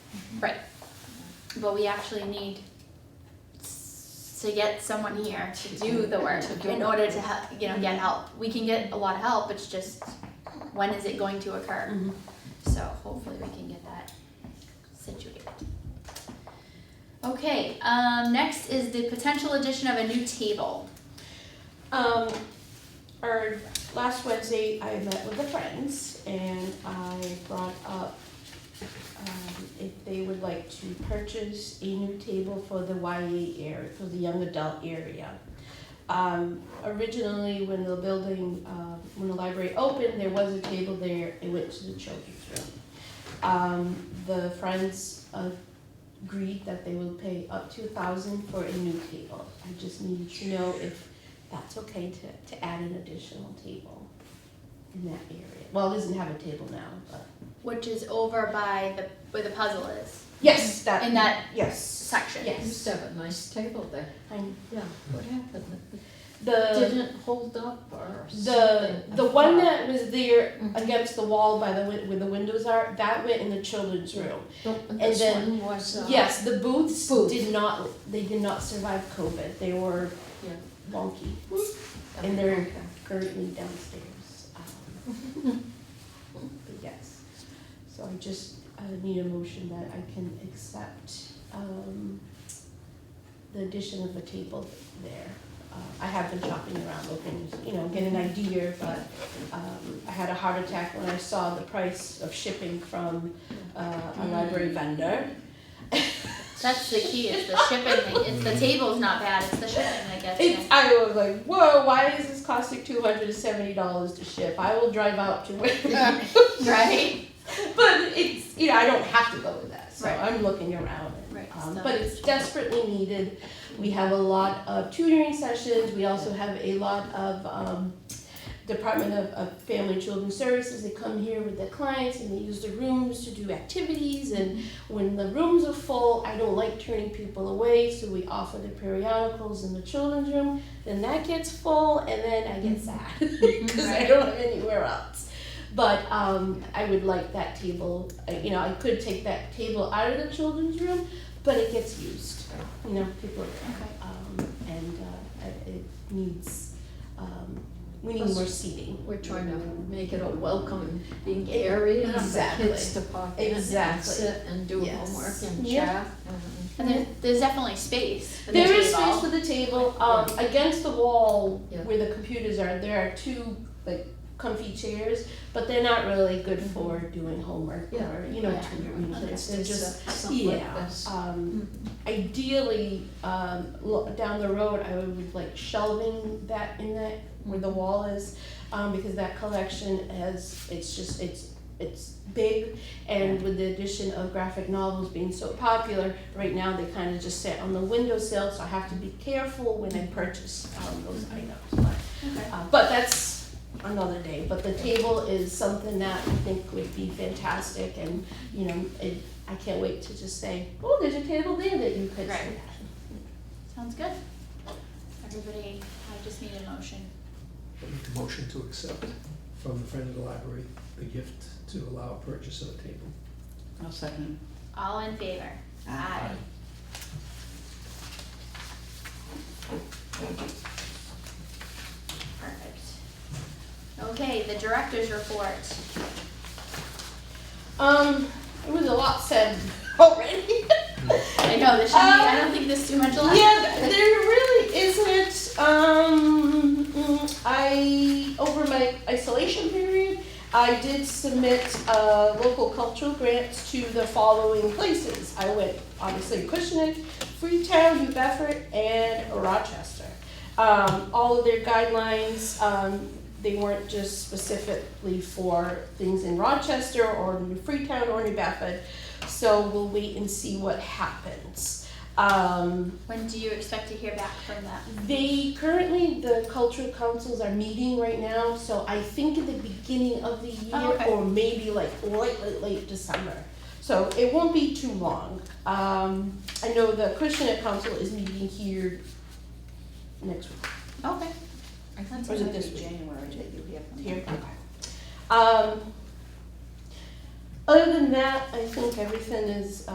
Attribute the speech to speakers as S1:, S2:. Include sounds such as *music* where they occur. S1: Right. But we actually need s- to get someone here to do the work
S2: To do
S1: in
S2: it.
S1: order to help, you know, get help. We can get a lot of help, it's just when is it going to occur?
S3: Mm-hmm.
S2: Mhm.
S1: So hopefully we can get that situated. Okay, um, next is the potential addition of a new table.
S3: Um, or last Wednesday, I met with the friends and I brought up um, if they would like to purchase a new table for the YA area, for the young adult area. Um, originally, when the building, uh, when the library opened, there was a table there. It went to the children's room. Um, the friends uh, agreed that they will pay up to a thousand for a new table. I just needed to know if that's okay to, to add an additional table in that area. Well, it doesn't have a table now, but.
S1: Which is over by the, where the puzzle is,
S3: Yes, that.
S1: in that
S3: Yes.
S1: section.
S2: You used
S3: Yes.
S2: to have a nice table there.
S3: I'm-
S2: Yeah, what happened?
S3: The,
S2: Didn't hold up or
S3: the,
S2: something?
S3: the one that was there
S2: Mhm.
S3: against the wall by the, win- where the windows are, that went in the children's room.
S2: But
S3: and
S2: This
S3: then-
S2: one was, uh.
S3: Yes, the booths
S2: Booth.
S3: did not, they did not survive COVID. They were
S2: Yeah.
S3: wonky.
S2: okay,
S3: and they're-
S2: okay.
S3: currently downstairs. Um, *laughs* But yes, so I just uh, need a motion that I can accept um, the addition of a table there. Uh, I have been shopping around looking, you know, get an idea, but um, I had a heart attack when I saw the price of shipping from uh, a library vendor.
S1: That's the key, it's the shipping thing, it's the table's not bad, it's the shipping that gets you.
S3: It's, I was like, whoa, why is this costing two hundred and seventy dollars to ship? I will drive out to *laughs* where
S1: Right?
S3: But it's, you know, I don't have to go with that, so
S1: Right.
S3: I'm looking around. and,
S1: Right,
S3: um,
S1: so-
S3: But it's desperately needed. We have a lot of tutoring sessions, we also have a lot of, um, Department of, of Family and Children Services, they come here with their clients and they use the rooms to do activities and when the rooms are full, I don't like turning people away, so we offer the periodicals in the children's room. Then that gets full, and then I get sad
S1: *laughs*
S3: *laughs* because I
S1: Mm-hmm. Right.
S3: don't have anywhere else. But um, I would like that table. I- You know, I could take that table out of the children's room, but it gets used. You know, people are
S1: Okay.
S3: um, and uh, it- it needs. Um, we need more seating.
S2: We're trying to make it a welcoming area for
S3: Exactly.
S2: kids to pop in and
S3: Exactly.
S2: sit and do homework
S3: Yes.
S2: and
S3: Yeah.
S2: chat.
S1: And there, there's definitely space for the
S3: There is
S1: table.
S3: space for the table, um, against the wall
S2: Yeah.
S3: where the computers are, there are two like comfy chairs, but they're not really good for doing homework
S2: Mm-hmm. Yeah.
S3: or, you know,
S1: Yeah.
S3: tutoring kids, they're just,
S2: something like
S3: yeah.
S2: this. Mm-hmm.
S3: Um, ideally, um, lo- down the road, I would like shelving that in that, where the wall is, um, because that collection has, it's just, it's, it's big, and with the addition of graphic novels being so popular, right now they kind of just sit on the windowsill, so I have to be careful when I purchase, um, those items, but
S1: Okay.
S3: uh, but that's another day. But the table is something that I think would be fantastic, and you know, it, I can't wait to just say, oh, there's a table there that you could. sit
S1: Right.
S3: at."
S1: Sounds good. Everybody, I just need a motion.
S4: Make a motion to accept from the friend of the library, the gift to allow purchase of a table.
S5: I'll second.
S1: All in favor? Aye. Perfect. Okay, the director's report.
S3: Um, it was a lot said *laughs* already.
S1: I know, this should be, I don't think there's too much left.
S3: Um, yeah, th- there really isn't. Um, mm, I over my isolation period, I did submit uh, local cultural grants to the following places. I went obviously Cushing, Freetown, New Bedford, and Rochester. Um, all of their guidelines, um, they weren't just specifically for things in Rochester or New Freetown or New Bedford. So we'll wait and see what happens. Um,
S1: When do you expect to hear back from them?
S3: they currently the cultural councils are meeting right now, so I think at the beginning of the year
S1: Oh, okay.
S3: or maybe like late, late, late December. So it won't be too long. Um, I know the Christian Council is meeting here next week.
S1: Okay.
S5: I think
S3: Or is
S5: it
S3: it
S5: might
S3: this
S5: be
S3: week?
S5: January that you have them.
S3: Here, okay. Um, other than that, I think everything is